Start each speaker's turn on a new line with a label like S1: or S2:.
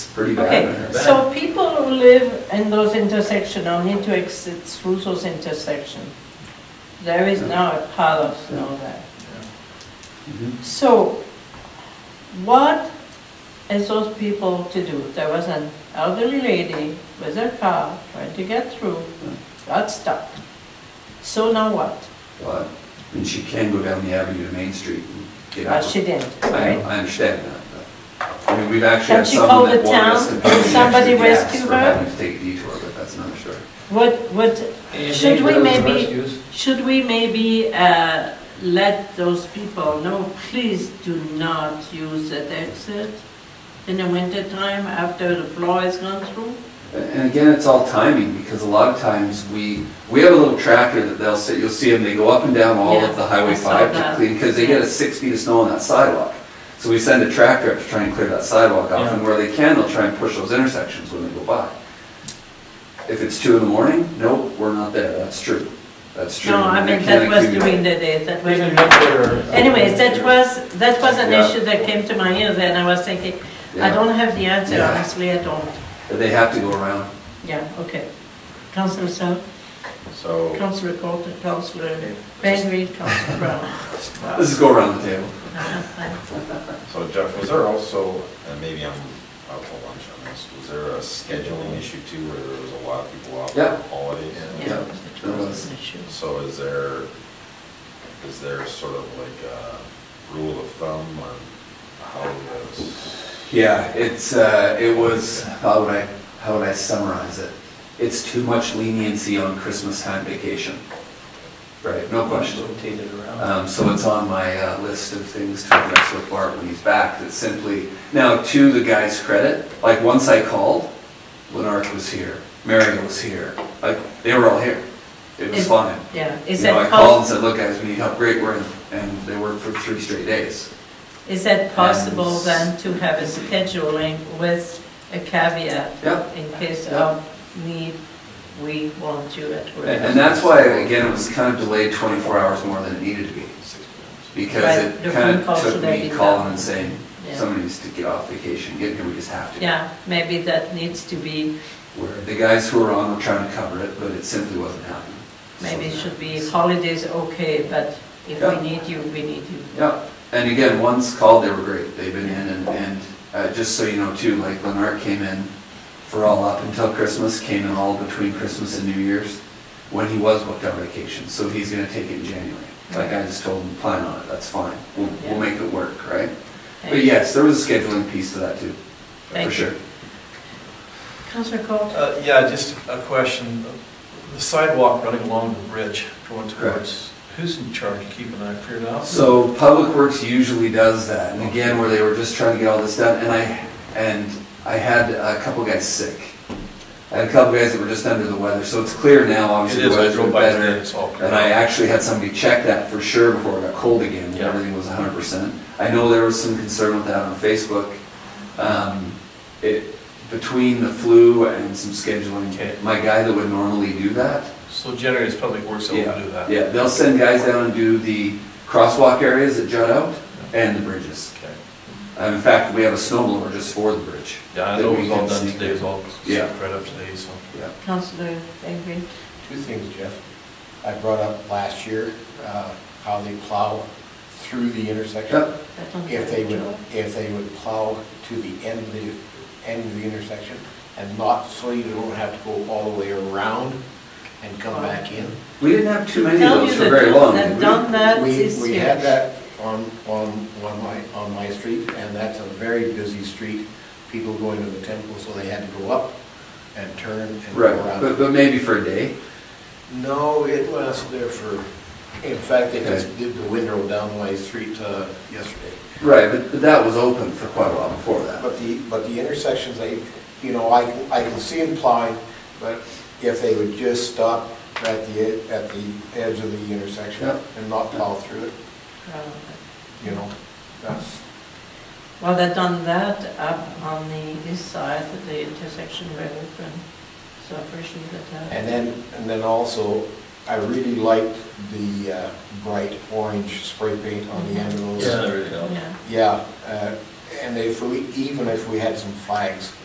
S1: pretty bad in
S2: Okay,
S1: there.
S2: so people who live in those intersection on into exits, Russo's intersection, there is now a Palos now there.
S1: Mhm.
S2: So what is those people to do? There was an elderly lady with her car trying to get through, got stuck. So now what?
S1: But, and she can go down the avenue to Main Street and get
S2: Well,
S1: out.
S2: Uh, she didn't,
S1: I,
S2: right?
S1: I understand that, but, I mean, we've actually
S2: Can
S1: had
S2: she call
S1: someone that
S2: the
S1: wanted
S2: town?
S1: us to
S2: Can
S1: pay the extra
S2: somebody
S1: gas
S2: rescue
S1: for
S2: her?
S1: having to take a detour, but that's another story.
S2: What, what,
S3: Anything
S2: Should we
S3: for those
S2: maybe-
S3: rescues?
S2: Should we maybe uh, let those people know, please do not use that exit in the wintertime after the plow has gone through?
S1: And again, it's all timing, because a lot of times we, we have a little tracker that they'll sit, you'll see them, they go up and down all of the
S2: Yeah, I
S1: Highway
S2: saw
S1: five
S2: that.
S1: to clean, because they get a
S2: Yes.
S1: six feet of snow on that sidewalk. So we send a tractor up to try and clear that sidewalk off, and where they can, they'll try and push those intersections when they go by. If it's two in the morning, nope, we're not there, that's true, that's true.
S2: No, I
S1: They
S2: mean,
S1: can't
S2: that was
S1: accumulate.
S2: during the day, that was.
S3: Even if they're-
S2: Anyways, that was, that was an
S1: Yeah.
S2: issue that came to my ears and I was thinking, I
S1: Yeah.
S2: don't have the answer,
S1: Yeah.
S2: honestly, I don't.
S1: But They have to go around.
S2: Yeah, okay. Councillor South,
S4: So,
S2: Councillor Colton, Councillor Benry, Councillor Brown. Uh,
S1: This is go around the table.
S4: so Jeff, was there also, and maybe I'm out for lunch on this, was there a scheduling issue too, where there was a lot of people off
S1: Yeah.
S4: on holidays?
S2: Yeah,
S1: Yeah, that was-
S2: an issue.
S4: So is there, is there sort of like a rule of thumb on how this?
S1: Yeah, it's, uh, it was, how would I, how would I summarize it? It's too much leniency on Christmas time vacation. Right, no question.
S3: Rotated
S5: Uh,
S3: around.
S1: Um, so it's on my, uh, list of things to address with Bart when he's back, that simply, now, to the guy's credit, like, once I called, Lenark was here, Mario was here, like, they were all here. It was
S2: Is-
S1: fine.
S2: Yeah,
S1: You
S2: is
S1: know, I called
S2: that possible?
S1: and said, look, guys, we need help, great, we're in, and they worked for three straight days.
S2: Is that possible
S1: And-
S2: then to have a scheduling with a caveat
S1: Yep.
S2: in case
S1: Yeah.
S2: of need, we want you at work?
S1: And and that's why, again, it was kind of delayed 24 hours more than it needed to be, because
S2: Right,
S1: it
S2: the
S1: kind
S2: phone call
S1: of took
S2: should have
S1: me
S2: been
S1: calling
S2: done.
S1: and saying,
S2: Yeah.
S1: somebody needs to get off vacation, get here, we just have to.
S2: Yeah, maybe that needs to be,
S1: Where the guys who were on were trying to cover it, but it simply wasn't happening.
S2: maybe it
S1: So-
S2: should be holidays, okay, but if
S1: Yeah.
S2: we need you, we need you.
S1: Yeah, and again, once called, they were great, they've been in, and, and uh, just so you know too, like Lenart came in for all up until Christmas, came in all between Christmas and New Year's, when he was booked on vacation, so he's gonna take it in January. Like I just told him, plan on it, that's fine, we'll,
S2: Yeah.
S1: we'll make it work, right? But
S2: Thank
S1: yes, there was a scheduling piece to that too, for
S2: Thank you.
S1: sure.
S2: Councillor Court?
S5: Uh, Yeah, just a question. The sidewalk running along the ridge going towards, who's in charge of keeping that cleared out?
S1: So Public Works usually does that, and again, where they were just trying to get all this done, and I, and I had a couple guys sick. I had a couple guys that were just under the weather, so it's clear now,
S5: It
S1: obviously,
S5: is,
S1: the
S5: I
S1: weather's been
S5: drove by today,
S1: better.
S5: it's all cleared
S1: And I
S5: out.
S1: actually had somebody check that for sure before it got cold again, and
S5: Yeah.
S1: everything was hundred percent. I know there was some concern with that on Facebook. Um, It, between the flu and some scheduling,
S5: Okay.
S1: my guy that would normally do that,
S5: So generally, it's Public Works that
S1: yeah,
S5: will do that.
S1: Yeah, they'll send guys down and do the crosswalk areas that jut out and the bridges.
S5: Okay.
S1: And in fact, we have a snow blower just for the bridge.
S5: Yeah, I
S1: that
S5: know it
S1: we
S5: was
S1: can
S5: all done
S1: sneak-
S5: today, it was all
S1: Yeah.
S5: spread up today, so.
S1: Yeah.
S2: Councillor Avery?
S6: Two things, Jeff. I brought up last year, uh, how they plow through the intersection.
S1: Yep.
S2: that don't
S6: If they would,
S2: count.
S6: if they would plow to the end of the, end of the intersection and not, so you don't have to go all the way around and come back in.
S1: We didn't have too many of
S2: Tell
S1: those
S2: you
S1: for
S2: the
S1: very
S2: people
S1: long.
S2: that
S1: did we?
S2: done that
S6: We,
S2: this
S6: we
S2: year.
S6: had that on, on, on my, on my street, and that's a very busy street. People going to the temple, so they had to go up and turn and go
S1: Right,
S6: around.
S1: but, but maybe for a day.
S6: No, it was there for, in fact, they just did the window down my street uh, yesterday.
S1: Right, but, but that was open for quite a while before that.
S6: But the, but the intersections, they, you know, I, can- I can see them plowing, but if they would just stop at the, e- at the edge of the intersection
S1: Yep.
S6: and not plow through it,
S2: Uh,
S6: you know, that's,
S2: Well, they done that up on the east side, the intersection very open, so I appreciate that.
S6: And then, and then also, I really liked the uh, bright orange spray paint on the end of those.
S3: there you go.
S2: Yeah.
S6: Yeah, uh, and if we, even if we had some flags,